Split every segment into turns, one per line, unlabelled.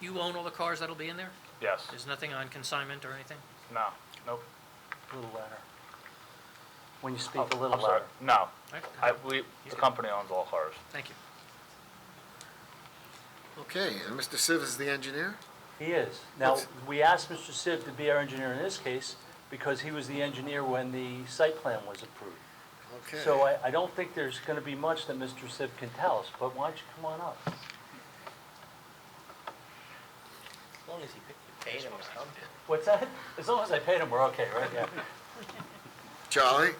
You own all the cars that'll be in there?
Yes,
There's nothing on consignment or anything?
no, nope.
A little louder. When you speak
Oh,
a little
I'm sorry.
louder.
No,
All right,
I, we,
He's
the
good.
company owns all cars.
Thank you.
Okay, and Mr. Siv is the engineer?
He is. Now,
What's-
we asked Mr. Siv to be our engineer in this case because he was the engineer when the site plan was approved.
Okay.
So
uh,
I, I don't think there's going to be much that Mr. Siv can tell us, but why don't you come on up?
As long as he paid him or something.
What's that? As long as I paid him, we're okay, right? Yeah.
Charlie,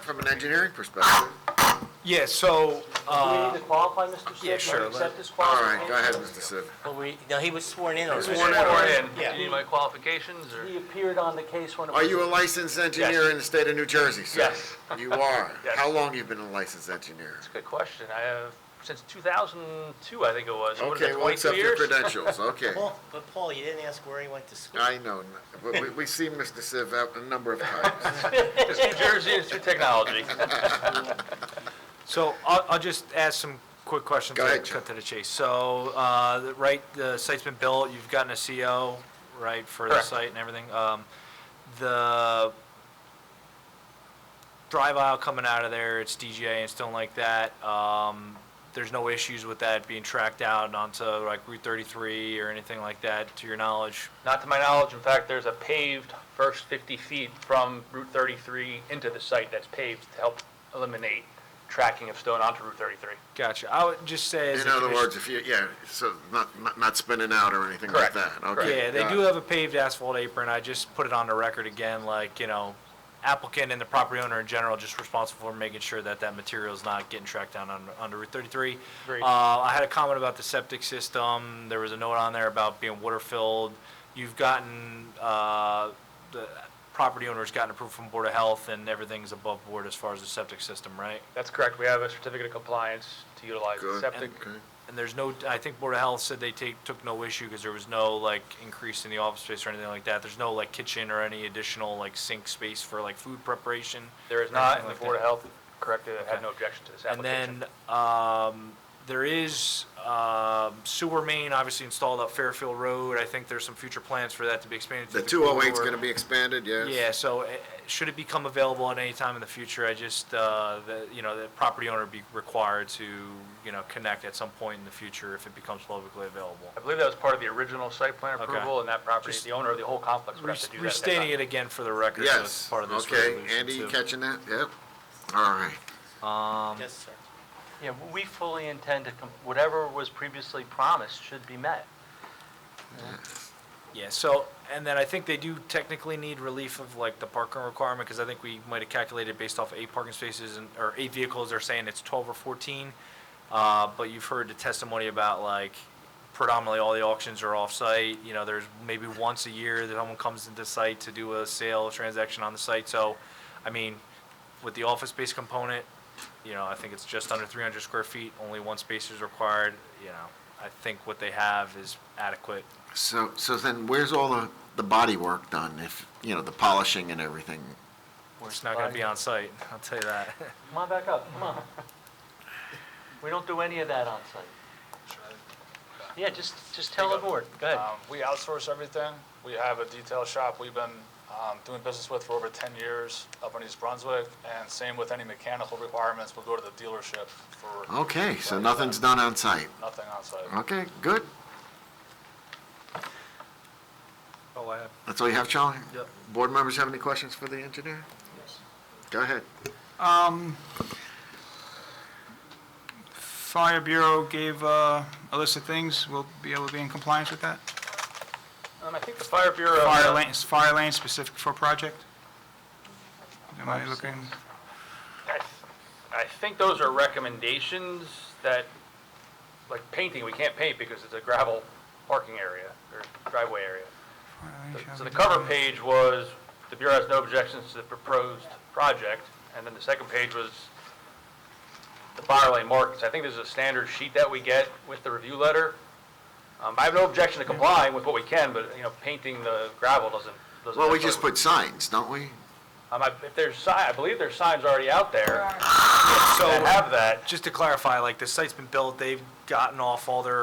from an engineering perspective,
Yeah, so,
Do we
uh,
need to qualify Mr. Siv?
yeah,
Not
sure, let-
Accept his
all right,
qualification?
go ahead, Mr. Siv.
But we, no, he was sworn in already.
Sworn in.
Yeah.
need my qualifications
He appeared on the case when it was.
Are you a licensed engineer in the state of New Jersey, sir?
Yes.
You are?
Yes.
How long you been a licensed engineer?
That's a good question. I have, since 2002, I think it was. What is
Okay,
it,
well,
22
accept your
years?
credentials, okay.
Paul- But Paul, you didn't ask where he went to school.
I know, but we, we see Mr. Siv out a number of times.
It's New Jersey, it's through technology.
so I'll, I'll just ask some quick questions.
Go
to
ahead, Joe.
Cut to the chase. So, uh, the- right, the site's been built, you've gotten a CO, right, for the
Correct.
site and everything. Um, The drive aisle coming out of there, it's DGA and stuff like that. Um, There's no issues with that being tracked out onto like Route 33 or anything like that, to your knowledge?
Not to my knowledge, in fact, there's a paved first 50 feet from Route 33 into the site that's paved to help eliminate tracking of stone onto Route 33.
Gotcha. I would just say as a
In other
commission-
words, if you, yeah, so not, not- not spinning out or anything like
Correct.
that, okay?
Yeah, they
got
do
it.
have a paved asphalt apron, I just put it on the record again, like, you know, applicant and the property owner in general just responsible for making sure that that material is not getting tracked down on, under Route thirty-three.
Agreed.
Uh, I had a comment about the septic system, there was a note on there about being water-filled, you've gotten, uh, the property owner's gotten approved from Board of Health and everything's above board as far as the septic system, right?
That's correct. We have a certificate of compliance to utilize the
Good.
septic.
Okay.
And there's no, I think Board of Health said they take, took no issue because there was no like increase in the office space or anything like that. There's no like kitchen or any additional like sink space for like food preparation.
There is
or
not,
anything
and the
like
Board of
that.
Health corrected, it,
Okay.
had no objection to this
And
application.
then, um, there is, um, sewer main obviously installed up Fairfield Road. I think there's some future plans for that to be expanded to
The
the.
two oh eight's
corridor.
gonna be expanded, yes?
Yeah, so uh, should it become available at any time in the future, I just, uh, the, you know, the property owner be required to, you know, connect at some point in the future if it becomes publicly available.
I believe that was part of the original site plan
Okay.
approval, and that property,
Just
the owner of the whole complex would have to do that. at that
Restating
time.
it again for the record, so it's
Yes,
part of this
okay,
resolution,
Andy, you
too.
catching that? Yep, all right.
Yes, sir.
Yeah, we fully intend to, com- whatever was previously promised should be met.
Yeah, so, and then I think they do technically need relief of like the parking requirement, because I think we might have calculated based off eight parking spaces and, or eight vehicles, they're saying it's twelve or fourteen. Uh, but you've heard the testimony about like predominantly all the auctions are off-site, you know, there's maybe once a year that someone comes into site to do a sale transaction on the site, so, I mean, with the office space component, you know, I think it's just under three hundred square feet, only one space is required, you know, I think what they have is adequate.
So, so then where's all the, the body work done if, you know, the polishing and everything?
It's not gonna be on site, I'll tell you that.
Come on back up, come on. We don't do any of that on site. Yeah, just, just tell the board, go ahead.
Um, We outsource everything. We have a detail shop we've been um, doing business with for over 10 years up in East Brunswick, and same with any mechanical requirements, we'll go to the dealership for
Okay, so nothing's done on site.
nothing on site.
Okay, good.
Oh, I have.
That's all you have, Charlie?
Yep.
Board members have any questions for the engineer? Go ahead.
Um, Fire Bureau gave uh, a list of things, we'll be able to be in compliance with that?
Um, I think the Fire Bureau. uh,
Fire lane, is fire lane specific for project? Am I looking,
I th- I think those are recommendations that, like painting, we can't paint because it's a gravel parking area or driveway area.
fire lane shall
So
be
the cover
designated-
page was, the Bureau has no objections to the proposed project, and then the second page was the fire lane markings. I think this is a standard sheet that we get with the review letter. Um, I have no objection to complying with what we can, but, you know, painting the gravel doesn't, doesn't.
Well, we
necessarily-
just put signs, don't we?
Um, I- if there's si, I believe there's signs already out there
So,
that have that.
just to clarify, like, the site's been built, they've gotten off all their